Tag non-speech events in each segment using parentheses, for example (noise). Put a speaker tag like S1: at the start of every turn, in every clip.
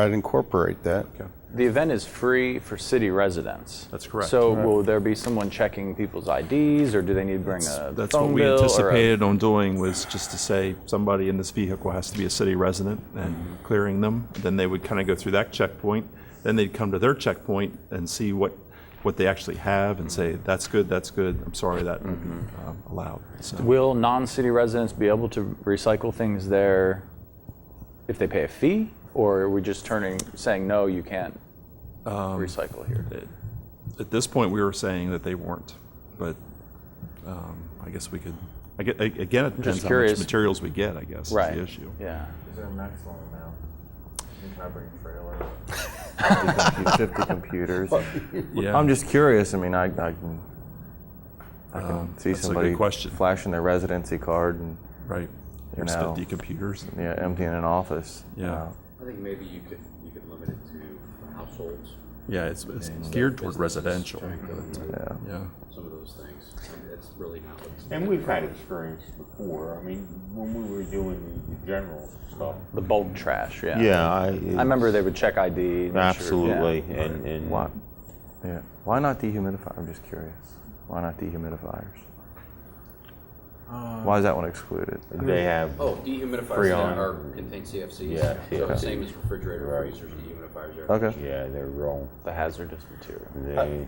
S1: I'd incorporate that.
S2: The event is free for city residents.
S3: That's correct.
S2: So will there be someone checking people's IDs, or do they need to bring a
S3: That's
S2: phone
S3: what we
S2: bill or a-
S3: anticipated on doing was just to say somebody in this vehicle has to be a city resident
S2: Mm-hmm.
S3: and clearing them. Then they would kind of go through that checkpoint. Then they'd come to their checkpoint and see what, what they actually have and
S2: Mm-hmm.
S3: say, that's good, that's good. I'm sorry, that won't be um, allowed. So
S2: Will non-city residents be able to recycle things there if they pay a fee, or are we just turning saying no, you can't
S3: Um,
S2: recycle here?
S3: at this point, we were saying that they weren't, but um, I guess we could, I gue- a- again, it depends how much
S2: curious.
S3: materials we get, I guess, is
S2: Right.
S3: the issue.
S2: Yeah.
S4: Is there a maximum amount? And Can I bring a trailer?
S5: 50 computers.
S3: Yeah.
S5: I'm just curious. I mean, I, I can, I can see
S3: Oh, um, that's a good
S5: somebody
S3: question.
S5: flashing their residency card and
S3: Right. There's
S5: know.
S3: 50 computers.
S5: yeah, emptying an office.
S3: Yeah.
S5: Uh,
S6: I think maybe you could, you could limit it to households,
S3: Yeah, it's, it's geared toward
S6: businesses
S3: residential.
S6: trying to-
S5: yeah.
S3: Yeah.
S6: some of those things. And That's really not what's.
S4: And we've had experience before. I mean, when we were doing the general stuff,
S2: The bulk trash, yeah.
S1: Yeah, I.
S2: I remember they would check ID. make sure- yeah.
S1: Absolutely, and, and.
S5: Uh, Why? Yeah. Why not dehumidify? I'm just curious. Why not dehumidifiers?
S7: Uh,
S5: Why is that one excluded?
S1: They have,
S6: Oh, dehumidifiers
S1: Freon.
S6: that are, contain CFCs.
S1: Yeah,
S6: So
S1: yeah.
S6: the same as refrigerator, freezers, dehumidifiers. everything.
S5: Okay.
S1: yeah, they're wrong.
S2: The hazardous material.
S1: They,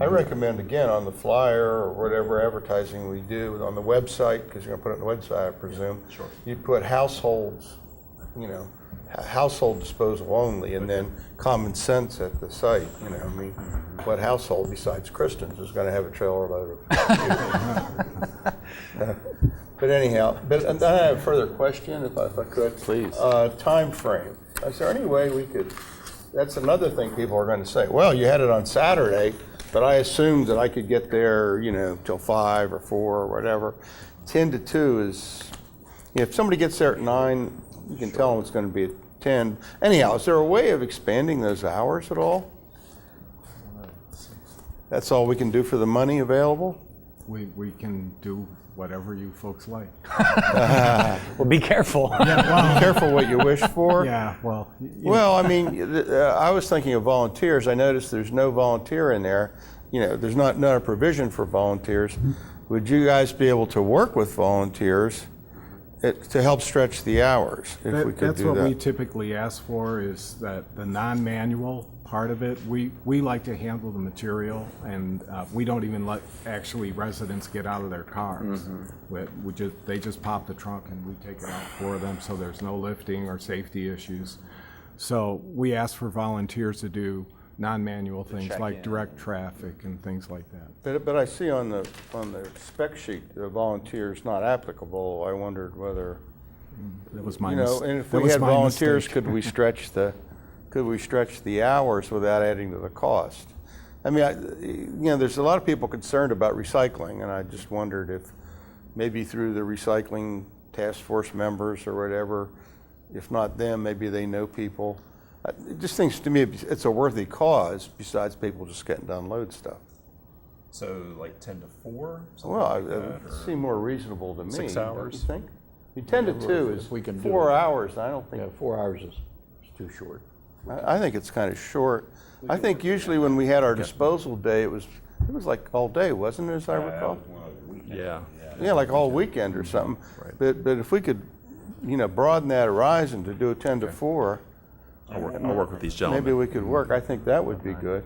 S8: I recommend, again, on the flyer or whatever advertising we do, on the website, because you're going to put it on the website, I presume. Sure. You put households, you know, h- household disposal only, and then common sense at the site, you know, I mean, what household besides Kristen's is going to have a trailer load of? But anyhow, but and then I have a further question, if I if I could.
S2: Please.
S8: Uh, Timeframe. Is there any way we could, that's another thing people are going to say, well, you had it on Saturday, but I assumed that I could get there, you know, till five or four or whatever. 10 to 2 is, you know, if somebody gets there at nine, you can tell them it's going to be at 10. Anyhow, is there a way of expanding those hours at all? That's all we can do for the money available?
S9: We, we can do whatever you folks like.
S2: (laughs) Well, be careful.
S8: Be careful what you wish for.
S9: (laughs) Yeah, well, y- you know,
S8: Well, I mean, th- uh, I was thinking of volunteers. I noticed there's no volunteer in there. You know, there's not, not a provision for volunteers. Would you guys be able to work with volunteers it- to help stretch the hours if we
S9: that,
S8: could
S9: that's
S8: do
S9: what we
S8: that?
S9: typically ask for is that the non-manual part of it, we, we like to handle the material and uh, we don't even let actually residents get out of their cars.
S8: Mm-hmm.
S9: We, we just, they just pop the trunk and we take it out for them so there's no lifting or safety issues. So we ask for volunteers to do non-manual things
S2: check
S9: like
S2: in.
S9: direct traffic and things like that.
S8: But, but I see on the, on the spec sheet, the volunteer's not applicable. I wondered whether,
S9: That was my
S8: you
S9: mis-
S8: know, and if
S9: that
S8: we
S9: was
S8: had
S9: my
S8: volunteers,
S9: mistake.
S8: could we stretch the, could we stretch the hours without adding to the cost? I mean, I, you know, there's a lot of people concerned about recycling, and I just wondered if maybe through the recycling task force members or whatever, if not them, maybe they know people. Uh, It just seems to me it's a worthy cause besides people just getting to unload stuff.
S3: So like 10 to 4?
S8: Oh, Well, I- it would seem more reasonable to me.
S3: Six
S8: don't
S3: hours?
S8: You think? I mean, 10 to 2 is
S7: we can do
S8: four
S7: it.
S8: hours. I don't think
S7: Yeah, four hours is, is too short.
S8: I I think it's kind of short. I think usually when we had our disposal day, it was, it was like all day, wasn't it, as I recall?
S3: Yeah.
S8: Yeah, like all weekend
S3: Mm-hmm.
S8: or something. But, but if we could, you know, broaden that horizon to do a 10 to 4,
S3: I'll work, I'll work with these
S8: maybe
S3: gentlemen.
S8: we could work. I think that would be good.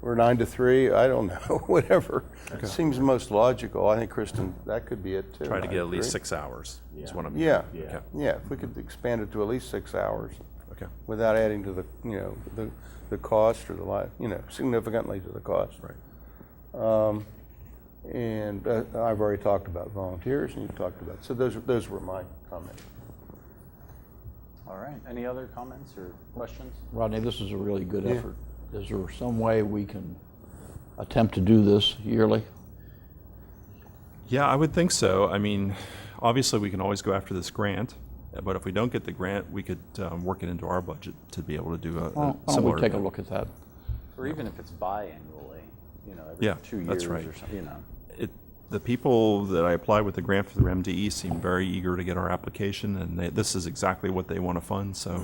S8: Or 9 to 3, I don't know, (laughs) whatever. Seems most logical. I think Kristen, that could be it too.
S3: Try to get at
S8: 9 3.
S3: least six hours is what I'm.
S8: Yeah,
S3: Okay.
S8: yeah, if we could expand it to at least six hours.
S3: Okay.
S8: without adding to the, you know, the, the cost or the li, you know, significantly to the cost. Um,
S3: Right.
S8: And uh, I've already talked about volunteers and you've talked about, so those, those were my comments.
S2: All right. Any other comments or questions?
S7: Rodney, this is a really good effort. Is there some way we can attempt to do this yearly?
S3: Yeah, I would think so. I mean, obviously, we can always go after this grant, but if we don't get the grant, we could um, work it into our budget to be able to do a, a
S7: Why don't- why don't
S3: similar.
S7: we take a
S3: event.
S7: look at that?
S2: Or even if it's biannually, you know, every
S3: Yeah,
S2: two years
S3: that's right.
S2: or something, you know.
S3: It, the people that I applied with the grant for the E MDE seem very eager to get our application, and they, this is exactly what they want to fund. So